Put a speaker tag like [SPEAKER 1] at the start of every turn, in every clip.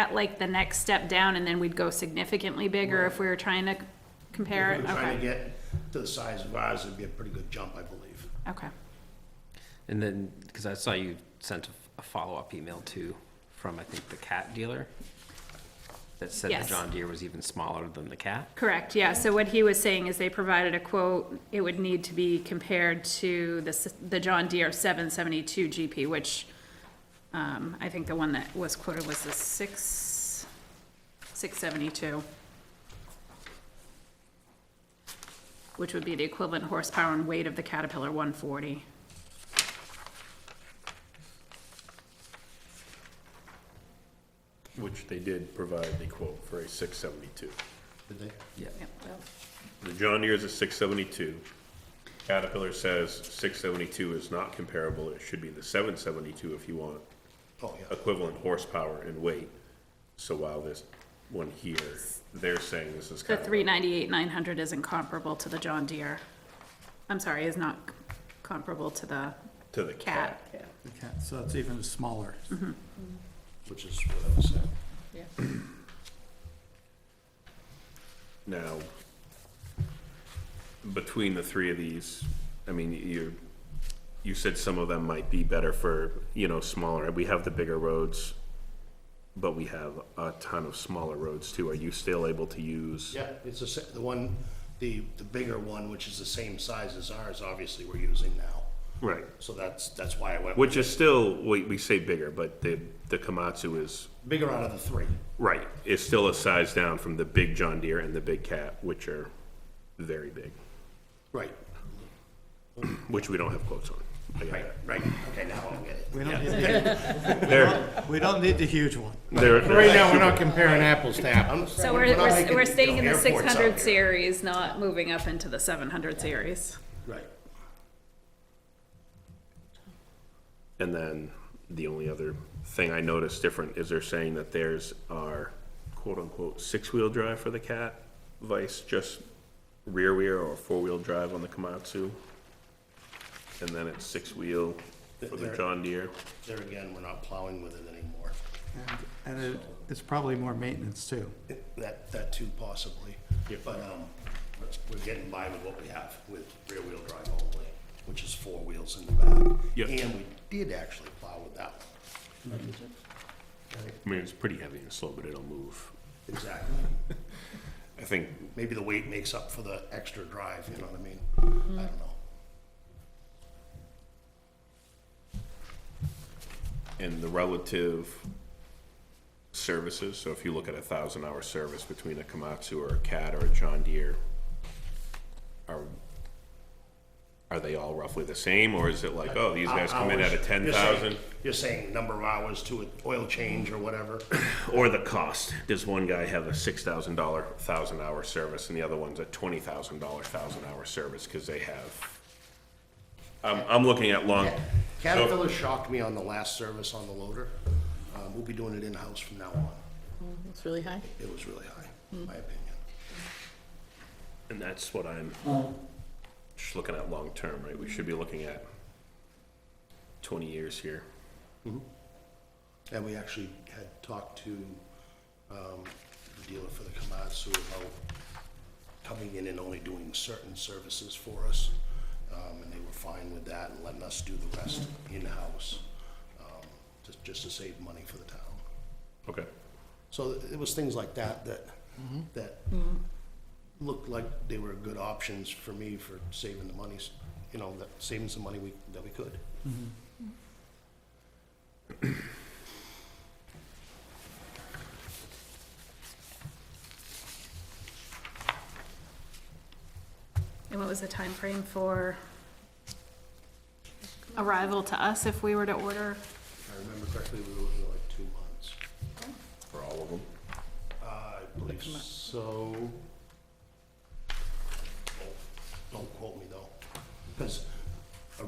[SPEAKER 1] at like the next step down and then we'd go significantly bigger if we were trying to compare
[SPEAKER 2] If
[SPEAKER 1] it?
[SPEAKER 2] we were Trying to
[SPEAKER 1] Okay,
[SPEAKER 2] get to the size of ours, it'd be a pretty good jump, I believe.
[SPEAKER 1] okay.
[SPEAKER 3] And then, because I saw you sent a- a follow-up email too, from I think the cat dealer, that said the
[SPEAKER 1] Yes.
[SPEAKER 3] John Deere was even smaller than the cat.
[SPEAKER 1] Correct, yeah. So what he was saying is they provided a quote, it would need to be compared to the, s- the John Deere seven seventy-two GP, which, um, I think the one that was quoted was the six, six seventy-two. Which would be the equivalent horsepower and weight of the Caterpillar one forty.
[SPEAKER 4] Which they did provide the quote for a six seventy-two.
[SPEAKER 2] Did they?
[SPEAKER 3] Yeah.
[SPEAKER 4] The John Deere's a six seventy-two. Caterpillar says six seventy-two is not comparable, it should be the seven seventy-two if you want
[SPEAKER 2] Oh, yeah.
[SPEAKER 4] equivalent horsepower and weight. So while this one here, they're saying this is
[SPEAKER 1] The
[SPEAKER 4] kind of.
[SPEAKER 1] three ninety-eight, nine hundred isn't comparable to the John Deere. I'm sorry, is not comparable to the
[SPEAKER 4] To the
[SPEAKER 1] cat.
[SPEAKER 4] cat.
[SPEAKER 5] Okay, so it's even smaller.
[SPEAKER 2] Which is what I was saying.
[SPEAKER 4] Now, between the three of these, I mean, you, you said some of them might be better for, you know, smaller, we have the bigger roads, but we have a ton of smaller roads too, are you still able to use?
[SPEAKER 2] Yeah, it's the, sa- the one, the, the bigger one, which is the same size as ours, obviously, we're using now.
[SPEAKER 4] Right,
[SPEAKER 2] So that's, that's why I went. with
[SPEAKER 4] which is still, we, we say bigger, but the, the Komatsu is,
[SPEAKER 2] Bigger out of the three.
[SPEAKER 4] right, is still a size down from the big John Deere and the big Cat, which are very big,
[SPEAKER 2] Right,
[SPEAKER 4] which we don't have quotes on. I got
[SPEAKER 2] right,
[SPEAKER 4] that.
[SPEAKER 2] right. Okay, now I'll get it.
[SPEAKER 5] We don't need, the-
[SPEAKER 4] They're,
[SPEAKER 5] we don't need the huge one.
[SPEAKER 4] they're.
[SPEAKER 6] Right now, we're not comparing apples to apples.
[SPEAKER 2] I'm
[SPEAKER 1] So
[SPEAKER 2] saying
[SPEAKER 1] we're,
[SPEAKER 2] not
[SPEAKER 1] we're,
[SPEAKER 2] making,
[SPEAKER 1] we're
[SPEAKER 2] you
[SPEAKER 1] staying
[SPEAKER 2] know,
[SPEAKER 1] in the six
[SPEAKER 2] airports out
[SPEAKER 1] hundred
[SPEAKER 2] here.
[SPEAKER 1] series, not moving up into the seven hundred series.
[SPEAKER 2] Right.
[SPEAKER 4] And then the only other thing I noticed different is they're saying that theirs are quote-unquote six-wheel drive for the Cat vice just rear-wheel or four-wheel drive on the Komatsu. And then it's six-wheel for the
[SPEAKER 2] They're-
[SPEAKER 4] John Deere.
[SPEAKER 2] There again, we're not plowing with it anymore.
[SPEAKER 5] And- And it, it's probably more maintenance too.
[SPEAKER 2] That, that too possibly. But, um, we're getting by with what we have with rear-wheel drive only, which is four wheels in the back.
[SPEAKER 4] Yeah.
[SPEAKER 2] And we did actually plow with that one.
[SPEAKER 4] I mean, it's pretty heavy and slow, but it'll move.
[SPEAKER 2] Exactly.
[SPEAKER 4] I think,
[SPEAKER 2] Maybe the weight makes up for the extra drive, you know what I mean? I don't know.
[SPEAKER 4] in the relative services, so if you look at a thousand-hour service between a Komatsu or a Cat or a John Deere, are, are they all roughly the same, or is it like, oh, these guys come in at a
[SPEAKER 2] Hours.
[SPEAKER 4] ten
[SPEAKER 2] You're saying-
[SPEAKER 4] thousand?
[SPEAKER 2] You're saying number of hours to an oil change or whatever.
[SPEAKER 4] Or the cost, does one guy have a six thousand dollar thousand-hour service and the other one's a twenty thousand dollar thousand-hour service, cause they have, I'm, I'm looking at long,
[SPEAKER 2] Caterpillar shocked me on the last service on the loader. Uh, we'll be doing it in-house from now on.
[SPEAKER 7] Mm, It's really high. Mm.
[SPEAKER 2] It was really high, in my opinion.
[SPEAKER 4] and that's what I'm just looking at long-term, right, we should be looking at twenty years here.
[SPEAKER 2] And we actually had talked to um, the dealer for the Komatsu about coming in and only doing certain services for us. Um, And they were fine with that and letting us do the rest in-house, um, just- just to save money for the town.
[SPEAKER 4] Okay.
[SPEAKER 2] So it was things like that that, that looked like they were good options for me for saving the monies, you know, that, saving some money we, that we could.
[SPEAKER 1] And what was the time frame for arrival to us if we were to order?
[SPEAKER 2] If I remember correctly, we were looking at like two months.
[SPEAKER 4] For all of them?
[SPEAKER 2] I believe so. Don't- Don't quote me though, because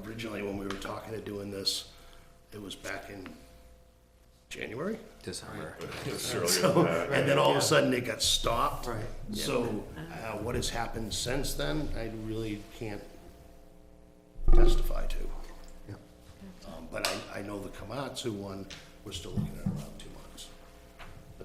[SPEAKER 2] originally when we were talking to doing this, it was back in January.
[SPEAKER 3] December.
[SPEAKER 2] So, and then all of a sudden it got stopped.
[SPEAKER 5] Right.
[SPEAKER 2] So, uh, what has happened since then, I really can't testify to.
[SPEAKER 5] Yep.
[SPEAKER 2] Um, but I, I know the Komatsu one, we're still looking at around two